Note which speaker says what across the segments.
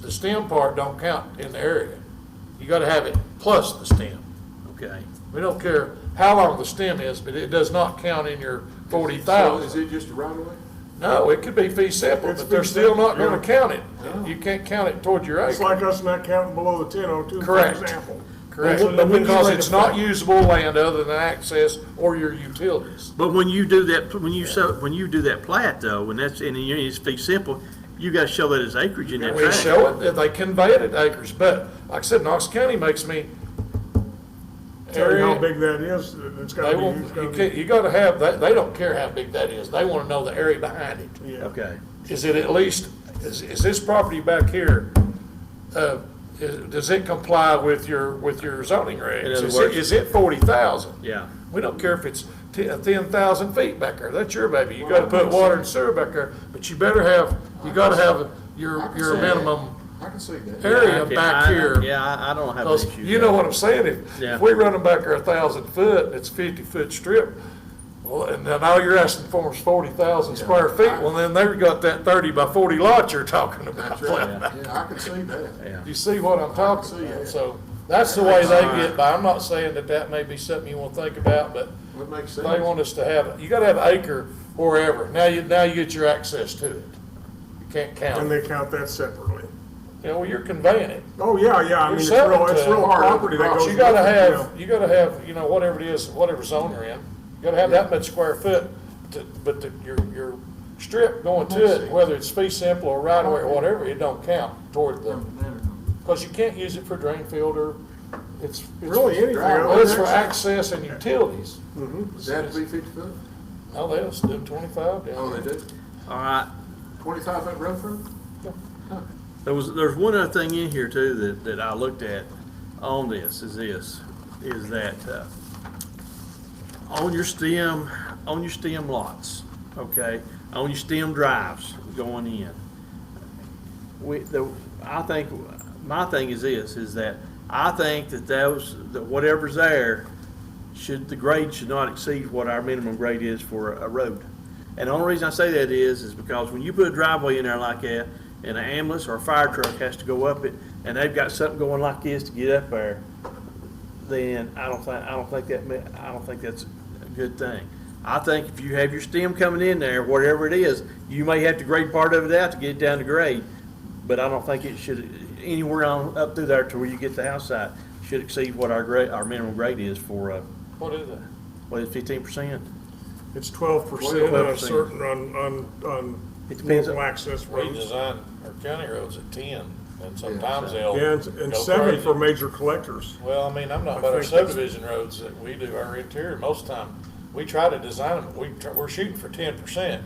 Speaker 1: the stem part don't count in the area. You gotta have it plus the stem.
Speaker 2: Okay.
Speaker 1: We don't care how long the stem is, but it does not count in your forty
Speaker 3: So Is
Speaker 1: thousand.
Speaker 3: it just a right of way?
Speaker 1: No, it could be fee simple,
Speaker 4: It's
Speaker 1: but they're
Speaker 4: fee
Speaker 1: still
Speaker 4: simple,
Speaker 1: not gonna
Speaker 4: yeah.
Speaker 1: count it. You can't count it toward your
Speaker 4: It's
Speaker 1: acre.
Speaker 4: like us not counting below the ten oh two, for
Speaker 1: Correct.
Speaker 4: example.
Speaker 1: Correct,
Speaker 4: That's what the
Speaker 1: because
Speaker 4: legislative
Speaker 1: it's not
Speaker 4: fact-
Speaker 1: usable land other than access or your utilities.
Speaker 2: But when you do that, when you so, when you do that plat though, when that's, and you- it's fee simple, you gotta show that as acreage in that
Speaker 1: We
Speaker 2: tract.
Speaker 1: show it, that they convey it at acres, but like I said, Knox County makes me.
Speaker 4: Tell you how
Speaker 1: area-
Speaker 4: big that is, it's
Speaker 1: They
Speaker 4: gotta be, it's
Speaker 1: won't,
Speaker 4: gotta
Speaker 1: you
Speaker 4: be-
Speaker 1: can't, you gotta have, that. they don't care how big that is, they wanna know the area behind it.
Speaker 4: yeah.
Speaker 2: Okay.
Speaker 1: Is it at least, is, is this property back here, uh, is- does it comply with your, with your zoning regs?
Speaker 2: In other
Speaker 1: Is
Speaker 2: words-
Speaker 1: it, is it forty thousand?
Speaker 2: Yeah.
Speaker 1: We don't care if it's ten, ten thousand feet back there, that's your baby, you gotta put water and sewer back there, but you better have, you gotta have
Speaker 3: I
Speaker 1: your,
Speaker 3: can
Speaker 1: your
Speaker 3: see that.
Speaker 1: minimum
Speaker 3: I can see that.
Speaker 1: area
Speaker 2: Okay,
Speaker 1: back
Speaker 2: I-
Speaker 1: here.
Speaker 2: Yeah, I, I don't have an
Speaker 1: Because
Speaker 2: issue.
Speaker 1: you know what I'm saying, if,
Speaker 2: Yeah.
Speaker 1: if we run them back there a thousand foot, and it's fifty foot strip, well, and then all you're asking for is forty thousand square feet, well, then they've got that thirty by forty lot you're talking about.
Speaker 3: That's right. Yeah, I can see that.
Speaker 2: Yeah.
Speaker 1: You see what I'm talking about, so that's the way they get by, I'm not saying that that may be something you wanna think about, but
Speaker 3: Would make sense.
Speaker 1: they want us to have, you gotta have acre wherever, now you, now you get your access to it. You can't
Speaker 4: And
Speaker 1: count it,
Speaker 4: they count that separately.
Speaker 1: you know, well, you're conveying it.
Speaker 4: Oh, yeah, yeah, I mean, it's
Speaker 1: You're
Speaker 4: real, it's
Speaker 1: selling
Speaker 4: real
Speaker 1: to-
Speaker 4: property that goes.
Speaker 1: You gotta
Speaker 4: with it,
Speaker 1: have, you gotta have, you know, whatever it is, whatever zone you're in, you gotta have that much square foot to, but the, your, your strip going to it, whether it's fee simple or right away or whatever, it don't count toward
Speaker 4: Hmm.
Speaker 1: the, cause you can't use it for drain field or, it's. it's-
Speaker 4: Really, anything Mm-hmm. other
Speaker 1: Well, it's
Speaker 4: than
Speaker 1: for
Speaker 4: access.
Speaker 1: access and utilities.
Speaker 3: Does that have to be fifty foot?
Speaker 1: No, they don't do twenty-five
Speaker 3: Oh,
Speaker 1: down
Speaker 3: they do?
Speaker 2: All right,
Speaker 3: Twenty-five foot road for?
Speaker 2: There was, there's one other thing in here too that, that I looked at on this, is this, is that, uh, on your stem, on your stem lots, okay, on your stem drives going in. We, the, I think, my thing is this, is that I think that those, that whatever's there, should, the grade should not exceed what our minimum grade is for a road. And the only reason I say that is, is because when you put a driveway in there like that, and an ambulance or a fire truck has to go up it, and they've got something going like this to get up there, then I don't think, I don't think that, ma- I don't think that's a good thing. I think if you have your stem coming in there, whatever it is, you may have to grade part of it out to get it down to grade, but I don't think it should, anywhere on, up through there to where you get the house site, should exceed what our grade, our minimum grade is for, uh,
Speaker 1: What is that?
Speaker 2: what is fifteen percent?
Speaker 4: It's twelve percent on
Speaker 2: 12%.
Speaker 4: a certain, on, on, on
Speaker 2: It depends on-
Speaker 4: local access roads.
Speaker 1: Redesign our county roads at ten, and
Speaker 3: sometimes
Speaker 1: they'll.
Speaker 4: Yeah, and- and seven for major collectors.
Speaker 1: Well, I mean, I'm not
Speaker 4: I
Speaker 1: about our
Speaker 4: think that's-
Speaker 1: subdivision roads that we do, our interior, most of the time, we try to design them, we, tr- we're shooting for ten percent.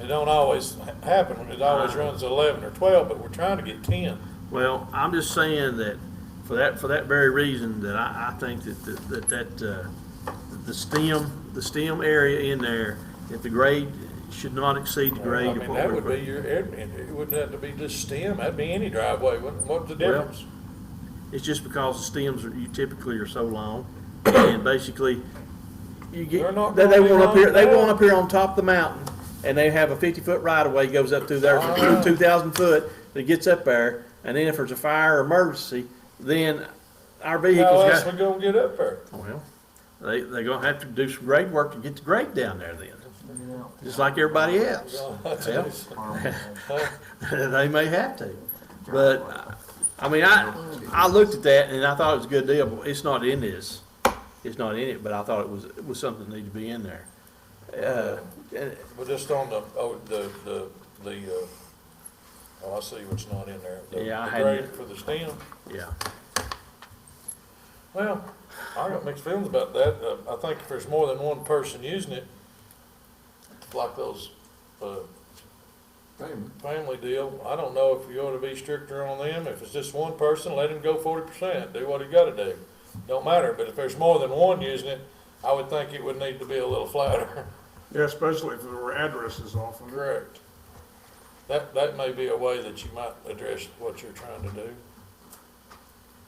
Speaker 1: It don't always ha- happen, it always runs eleven or twelve, but we're trying to get ten.
Speaker 2: Well, I'm just saying that for that, for that very reason, that I, I think that, that, that, uh, the stem, the stem area in there, if the grade should not exceed the
Speaker 1: I
Speaker 2: grade of
Speaker 1: mean,
Speaker 2: what
Speaker 1: that would
Speaker 2: we're.
Speaker 1: be your, it it wouldn't have to be just stem, that'd be any driveway, what, what's the
Speaker 2: Well,
Speaker 1: difference?
Speaker 2: It's just because the stems are, you typically are so long, and basically, you
Speaker 1: They're
Speaker 2: get,
Speaker 1: not
Speaker 2: they, they
Speaker 1: gonna be
Speaker 2: want up here,
Speaker 1: long
Speaker 2: they
Speaker 1: at all.
Speaker 2: want up here on top of the mountain, and they have a fifty-foot right-of-way goes up through there,
Speaker 1: Ah.
Speaker 2: two thousand foot, that gets up there, and then if there's a fire or emergency, then our vehicles
Speaker 1: How
Speaker 2: got. oh,
Speaker 1: else we gonna get up there?
Speaker 2: Well, they, they're gonna have to do some grade work to get the grade down there then, just like everybody else. Well, They may have to, but, uh, I mean, I, I looked at that and I thought it was a good deal, but it's not in this. It's not in it, but I thought it was, it was something that needed to be in there. Uh, and-
Speaker 1: But just on the, oh, the, the, the, uh, oh, I see what's not in there. The-
Speaker 2: Yeah, I
Speaker 1: the grade
Speaker 2: hadn't-
Speaker 1: For the stem.
Speaker 2: yeah,
Speaker 1: Well, I got mixed feelings about that. Uh, I think if there's more than one person using it, like those, uh, family deal, I don't know if you ought to be stricter on them. If it's just one person, let him go forty percent, do what he gotta do. Don't matter, but if there's more than one using it, I would think it would need to be a little flatter.
Speaker 4: Yeah, especially if there were addresses off of it.
Speaker 1: Correct. That, that may be a way that you might address what you're trying to do.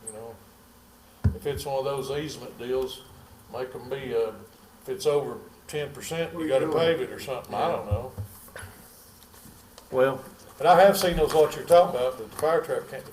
Speaker 1: You know, if it's one of those easement deals, make them be, uh, if it's over ten percent,
Speaker 3: What are
Speaker 1: you
Speaker 3: you
Speaker 1: gotta
Speaker 3: doing?
Speaker 1: pave it or something, I don't know.
Speaker 2: well,
Speaker 1: But I have seen those lots you're talking about, that the fire truck can't,